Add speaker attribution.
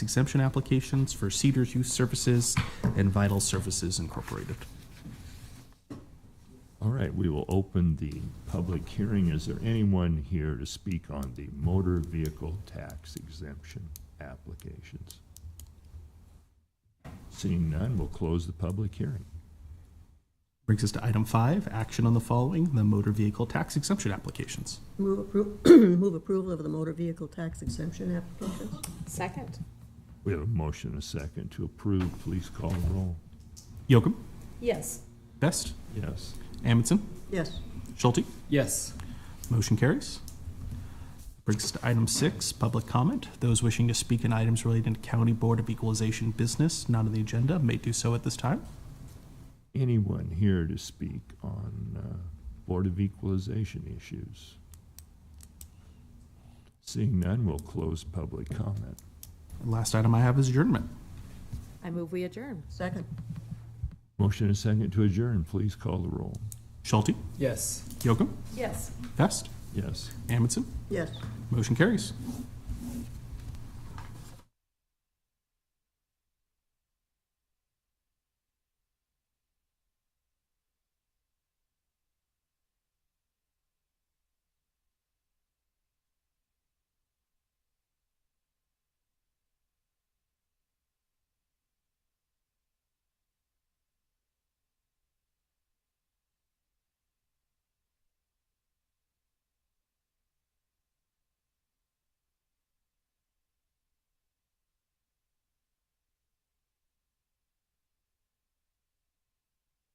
Speaker 1: exemption applications for Cedars Youth Services and Vital Services Incorporated.
Speaker 2: All right, we will open the public hearing. Is there anyone here to speak on the motor vehicle tax exemption applications? Seeing none, we'll close the public hearing.
Speaker 1: Brings us to item five, action on the following, the motor vehicle tax exemption applications.
Speaker 3: Move appro, move approval of the motor vehicle tax exemption applications?
Speaker 4: Second?
Speaker 2: We have a motion and a second to approve. Please call the roll.
Speaker 1: Yocum,
Speaker 4: Yes.
Speaker 1: Best,
Speaker 2: Yes.
Speaker 1: Amundson,
Speaker 3: Yes.
Speaker 1: Schulte.
Speaker 5: Yes.
Speaker 1: Motion carries. Brings us to item six, public comment. Those wishing to speak in items relating to County Board of Equalization business not on the agenda may do so at this time.
Speaker 2: Anyone here to speak on uh, Board of Equalization issues? Seeing none, we'll close public comment.
Speaker 1: Last item I have is adjournment.
Speaker 4: I move we adjourn.
Speaker 3: Second?
Speaker 2: Motion and a second to adjourn. Please call the roll.
Speaker 1: Schulte,
Speaker 5: Yes.
Speaker 1: Yocum,
Speaker 4: Yes.
Speaker 1: Best,
Speaker 2: Yes.
Speaker 1: Amundson.
Speaker 3: Yes.
Speaker 1: Motion carries.